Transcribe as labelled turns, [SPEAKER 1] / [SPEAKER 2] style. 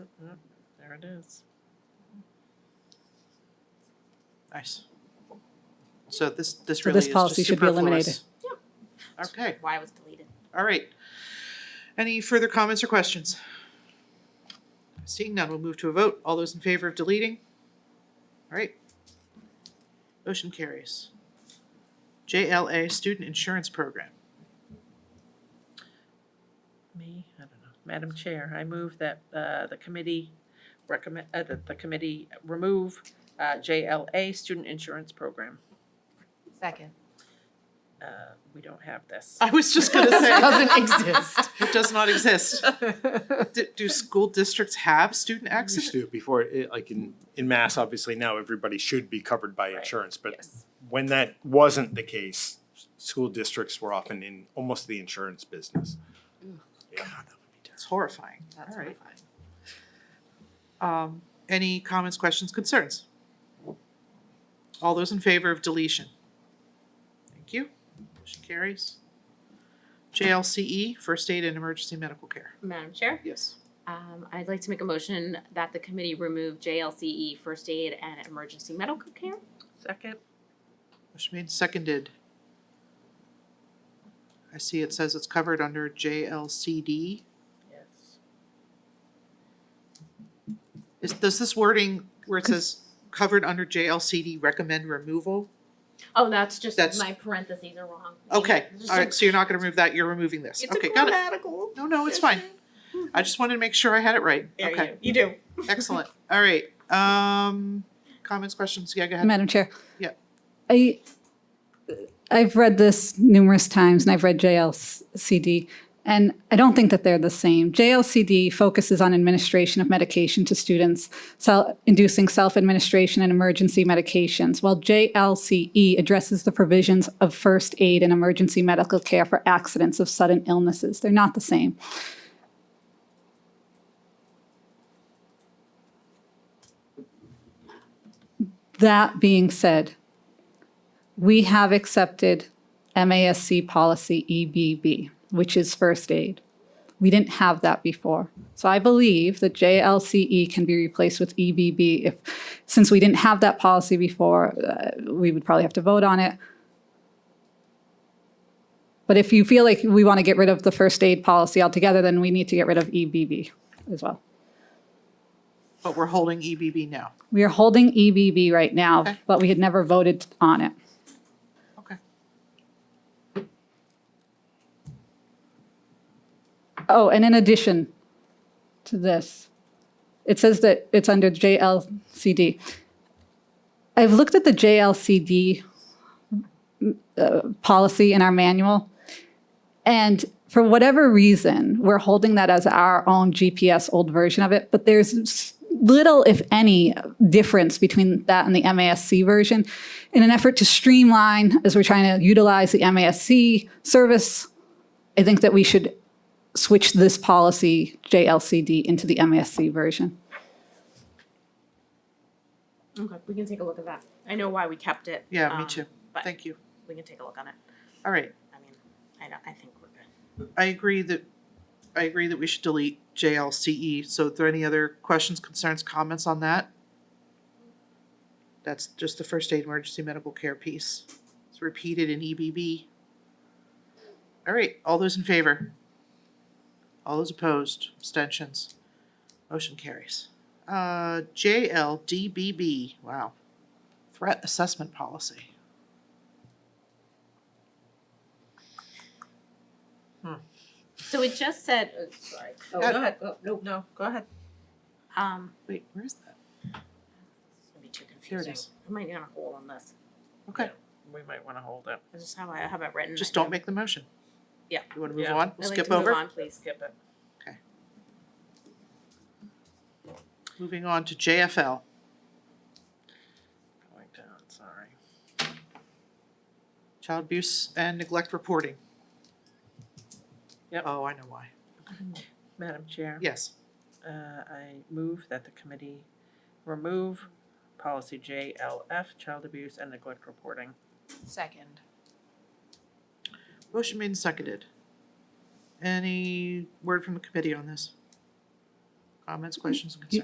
[SPEAKER 1] There it is. Nice. So this, this
[SPEAKER 2] So
[SPEAKER 1] really
[SPEAKER 2] this
[SPEAKER 1] is
[SPEAKER 2] policy
[SPEAKER 1] just
[SPEAKER 2] should be eliminated.
[SPEAKER 1] superfluous. Okay,
[SPEAKER 3] Why it was deleted.
[SPEAKER 1] all right. Any further comments or questions? Seeing none, we'll move to a vote. All those in favor of deleting? All right. Motion carries. JLA Student Insurance Program.
[SPEAKER 4] Me, I don't know. Madam Chair, I move that uh, the committee recommend, uh, that the committee remove uh, JLA Student Insurance Program.
[SPEAKER 3] Second.
[SPEAKER 4] Uh, We don't have this.
[SPEAKER 1] I was just gonna say,
[SPEAKER 3] Doesn't exist.
[SPEAKER 1] it does not exist. Do, do school districts have student accident?
[SPEAKER 5] used to before, it- like in, in mass, obviously now everybody should be covered by
[SPEAKER 4] Right,
[SPEAKER 5] insurance, but
[SPEAKER 4] Yes.
[SPEAKER 5] when that wasn't the case, s- school districts were often in almost the insurance business. Yeah.
[SPEAKER 1] It's horrifying.
[SPEAKER 3] That's
[SPEAKER 1] All right.
[SPEAKER 3] horrifying.
[SPEAKER 1] Um, any comments, questions, concerns? All those in favor of deletion? Thank you. Motion carries. JLCE, E, first aid and emergency medical care.
[SPEAKER 3] Madam Chair,
[SPEAKER 1] Yes.
[SPEAKER 3] um, I'd like to make a motion that the committee remove JLCE E first aid and emergency medical care.
[SPEAKER 4] Second?
[SPEAKER 1] Motion made, seconded. I see it says it's covered under JLCD.
[SPEAKER 4] Yes.
[SPEAKER 1] Is, does this wording where it says covered under JLCD recommend removal?
[SPEAKER 3] Oh, that's just
[SPEAKER 1] That's-
[SPEAKER 3] my parentheses are wrong.
[SPEAKER 1] Okay,
[SPEAKER 3] Just
[SPEAKER 1] all
[SPEAKER 3] a-
[SPEAKER 1] right, so you're not gonna remove that, you're removing this.
[SPEAKER 3] It's a
[SPEAKER 1] Okay, got it.
[SPEAKER 3] grammatical.
[SPEAKER 1] No, no, it's fine. I just wanted to make sure I had it right.
[SPEAKER 3] There
[SPEAKER 1] Okay,
[SPEAKER 3] you do.
[SPEAKER 1] excellent. All right, um, comments, questions? Yeah, go ahead.
[SPEAKER 2] Madam Chair.
[SPEAKER 1] Yeah.
[SPEAKER 2] I, I've read this numerous times and I've read JLCD, and I don't think that they're the same. JLCD focuses on administration of medication to students, sel- inducing self-administration and emergency medications, while JLCE E addresses the provisions of first aid and emergency medical care for accidents of sudden illnesses. They're not the same. That being said, we have accepted MASC policy EBB, which is first aid. We didn't have that before. So I believe that JLCE E can be replaced with EBB if, since we didn't have that policy before, uh, we would probably have to vote on it. But if you feel like we want to get rid of the first aid policy altogether, then we need to get rid of EBB as well.
[SPEAKER 1] But we're holding EBB now.
[SPEAKER 2] We are holding EBB right now,
[SPEAKER 1] Okay.
[SPEAKER 2] but we had never voted on it.
[SPEAKER 1] Okay.
[SPEAKER 2] Oh, and in addition to this, it says that it's under JLCD. I've looked at the JLCD uh, policy in our manual, and for whatever reason, we're holding that as our own GPS old version of it, but there's s- little, if any, difference between that and the MASC version. In an effort to streamline, as we're trying to utilize the MASC service, I think that we should switch this policy, JLCD, into the MASC version.
[SPEAKER 3] Okay, we can take a look at that. I know why we kept it.
[SPEAKER 1] Yeah, me
[SPEAKER 3] um,
[SPEAKER 1] too.
[SPEAKER 3] But
[SPEAKER 1] Thank you.
[SPEAKER 3] we can take a look on it.
[SPEAKER 1] All right,
[SPEAKER 3] I mean, I don't, I think we're good.
[SPEAKER 1] I agree that, I agree that we should delete JLCE. E. So are there any other questions, concerns, comments on that? That's just the first aid emergency medical care piece. It's repeated in EBB. All right, all those in favor? All those opposed, abstentions? Motion carries. Uh, JLDBB, wow. Threat assessment policy.
[SPEAKER 3] So it just said, oh, sorry.
[SPEAKER 4] Oh,
[SPEAKER 1] Uh,
[SPEAKER 4] go ahead. Nope. No, go ahead.
[SPEAKER 3] Um,
[SPEAKER 1] Wait, where is that?
[SPEAKER 3] it's gonna be too
[SPEAKER 1] Here it
[SPEAKER 3] confusing.
[SPEAKER 1] is.
[SPEAKER 3] I might not hold on this.
[SPEAKER 1] Okay,
[SPEAKER 4] We might want to hold it.
[SPEAKER 3] This is how I have it written.
[SPEAKER 1] just
[SPEAKER 3] I
[SPEAKER 1] don't make the motion.
[SPEAKER 3] Yeah.
[SPEAKER 1] You wanna move
[SPEAKER 4] Yeah.
[SPEAKER 1] on?
[SPEAKER 3] I'd like
[SPEAKER 1] Skip
[SPEAKER 3] to move
[SPEAKER 1] over?
[SPEAKER 3] on, please.
[SPEAKER 4] Skip it.
[SPEAKER 1] Moving on to JFL.
[SPEAKER 4] Going down, sorry.
[SPEAKER 1] Child abuse and neglect reporting.
[SPEAKER 4] Yep.
[SPEAKER 1] Oh, I know why.
[SPEAKER 4] Madam Chair?
[SPEAKER 1] Yes.
[SPEAKER 4] Uh, I move that the committee remove policy JLF, child abuse and neglect reporting.
[SPEAKER 3] Second.
[SPEAKER 1] Motion made and seconded. Any word from the committee on this? Comments, questions, concerns?